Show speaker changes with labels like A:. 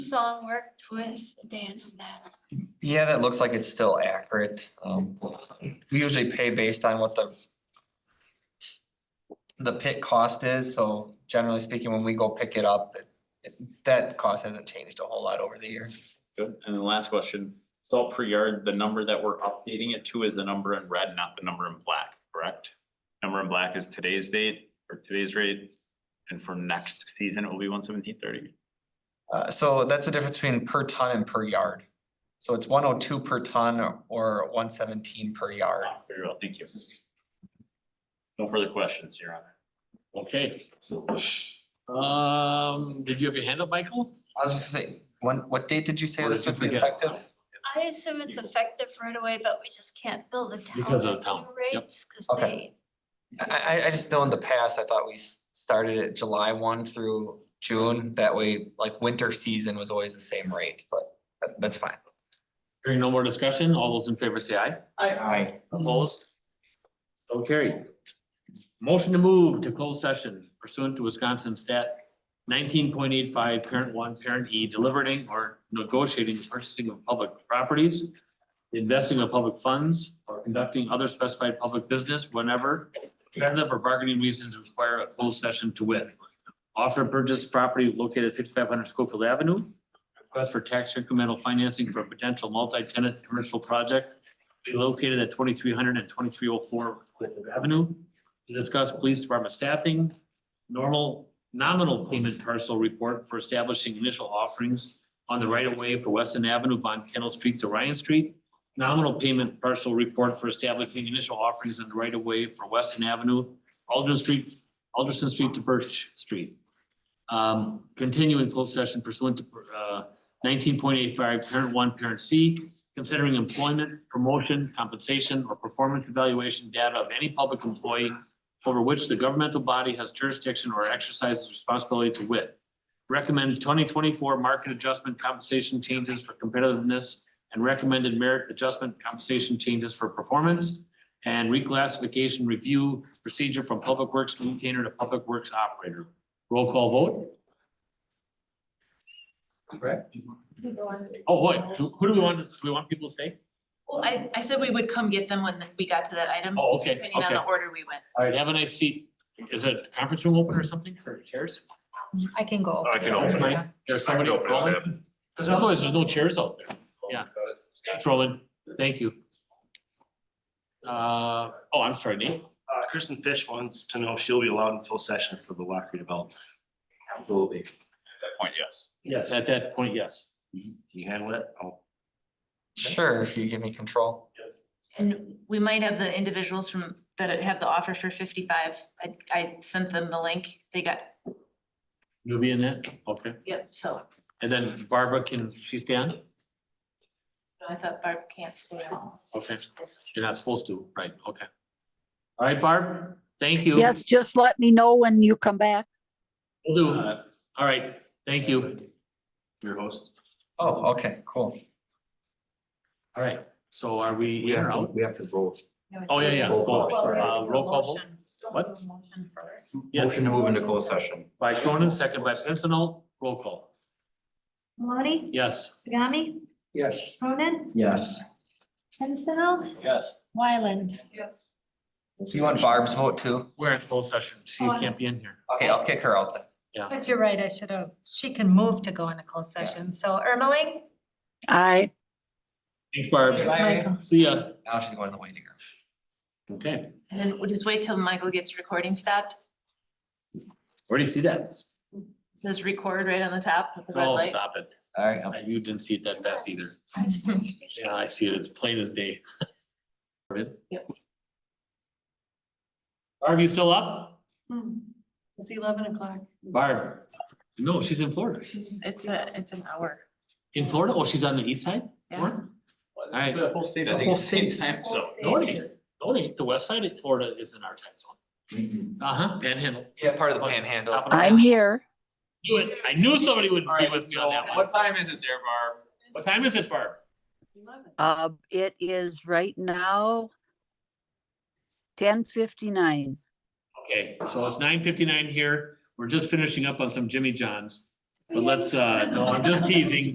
A: song worked with Dan on that.
B: Yeah, that looks like it's still accurate. Um, we usually pay based on what the the pit cost is, so generally speaking, when we go pick it up, it- it- that cost hasn't changed a whole lot over the years.
C: Good. And then last question, salt per yard, the number that we're updating it to is the number in red, not the number in black, correct? Number in black is today's date or today's rate, and for next season, it will be one seventeen thirty.
B: Uh, so that's the difference between per ton and per yard. So it's one oh two per ton or one seventeen per yard.
C: Very well, thank you. No further questions, Your Honor.
D: Okay. Um, did you have your hand up, Michael?
B: I was just saying, when, what date did you say
D: Or
B: this
D: did you
B: would be
D: forget?
B: effective?
A: I assume it's effective right away, but we just can't bill the town.
D: Because of the
A: at
D: town,
A: new
D: yep.
A: Rates, because they,
B: Okay. I, I, I just know in the past, I thought we s- started at July one through June, that way, like, winter season was always the same rate, but that- that's fine.
D: Hearing no more discussion, all those in favor say aye.
B: I,
D: Opposed? So carried. Motion to move to closed session pursuant to Wisconsin stat nineteen point eight five, parent one, parent E, delivering or negotiating the purchasing of public properties, investing of public funds, or conducting other specified public business whenever competitive or bargaining reasons require a closed session to wit. Offer to purchase property located at fifty-five hundred Schofield Avenue. Request for tax incremental financing for a potential multi-tenant commercial project be located at 2300 and 2304 Clinton Avenue. To discuss police department staffing, normal nominal payment parcel report for establishing initial offerings on the right of way for Weston Avenue, Von Kennel Street to Ryan Street. Nominal payment parcel report for establishing initial offerings on the right of way for Weston Avenue, Alderson Street, Alderson Street to Birch Street. Um, continuing closed session pursuant to, uh, nineteen point eight five, parent one, parent C, considering employment, promotion, compensation, or performance evaluation data of any public employee over which the governmental body has jurisdiction or exercises responsibility to wit. Recommend twenty twenty-four market adjustment compensation changes for competitiveness and recommended merit adjustment compensation changes for performance and reclassification review procedure from public works maintainer to public works operator. Roll call vote. Correct. Oh, wait, who who do we want? Do we want people to stay?
E: Well, I, I said we would come get them when we got to that item,
D: Oh, okay, okay.
E: depending on the order we went.
D: All right, have a nice seat. Is it a conference room open or something or chairs?
F: I can
C: Oh,
F: go.
G: I can open it.
D: Mike, There's somebody
G: I can open it,
D: calling? Because otherwise there's no chairs out there. Yeah. Thanks, Roland. Thank you. Uh, oh, I'm sorry, Nate.
G: Uh, Kristen Fish wants to know if she'll be allowed in full session for the lock redevelopment. Absolutely.
C: At that point, yes.
D: Yes, at that point, yes.
G: Can you handle it? I'll-
B: sure, if you give me control.
E: And we might have the individuals from, that have the offer for fifty-five. I, I sent them the link. They got,
D: You'll be in that? Okay.
E: yep, so
D: And then Barbara, can she stay on?
E: I thought Barb can't stay at all.
D: Okay. You're not supposed to, right? Okay. All right, Barb, thank you.
H: Yes, just let me know when you come back.
D: Will do. All right, thank you.
G: Your host.
B: Oh, okay, cool.
D: All right, so are we, we are out?
G: We have to vote.
D: Oh, yeah, yeah.
G: Roll call,
D: vote.
G: sorry.
D: Uh, roll call vote. What?
F: Motion first.
D: Yes,
G: to move into closed session.
D: by Cronin, second by Pincinel, roll call.
F: Maloney,
D: Yes.
F: Sagami,
G: Yes.
F: Cronin,
G: Yes.
F: Pincinel,
D: Yes.
F: Wyland. Yes.
B: Do you want Barb's vote too?
D: We're in closed session. She
F: Oh, I'm
D: can't
F: s-
D: be in here.
B: Okay, I'll kick her out then.
F: But you're right, I should have, she can move to go into closed session. So Ermeling?
H: Aye.
D: Thanks, Barb.
B: Bye.
F: Michael.
D: See ya.
B: Now she's going to the waiting room.
D: Okay,
E: And then we'll just wait till Michael gets recording stopped.
D: where do you see that?
E: It Says record right on the top with the red
D: Oh,
E: light.
D: stop it.
B: All right, I'll-
D: Uh, You didn't see it that fast either. Yeah, I see it. It's plain as day. Yep. Barb, you still up?
F: It's Hmm. eleven o'clock.
D: Barb? No, she's in Florida.
E: She's- It's a, it's an hour.
D: In Florida? Oh, she's on the east side?
E: Yeah.
D: Florida? All right.
C: The whole state, I think,
D: Whole
C: is same
D: state.
C: time, so.
D: No, it ain't. No, it ain't. The west side of Florida is in our time zone.
C: Mm-hmm.
D: Uh-huh, panhandle.
B: yeah, part of the panhandle.
H: I'm here.
D: Knew it. I knew somebody would be with me on that one.
C: What time is it there, Barb?
D: What time is it, Barb?
H: Uh, it is right now ten fifty-nine.
D: Okay, so it's nine fifty-nine here. We're just finishing up on some Jimmy Johns. But let's, uh, no, I'm just teasing.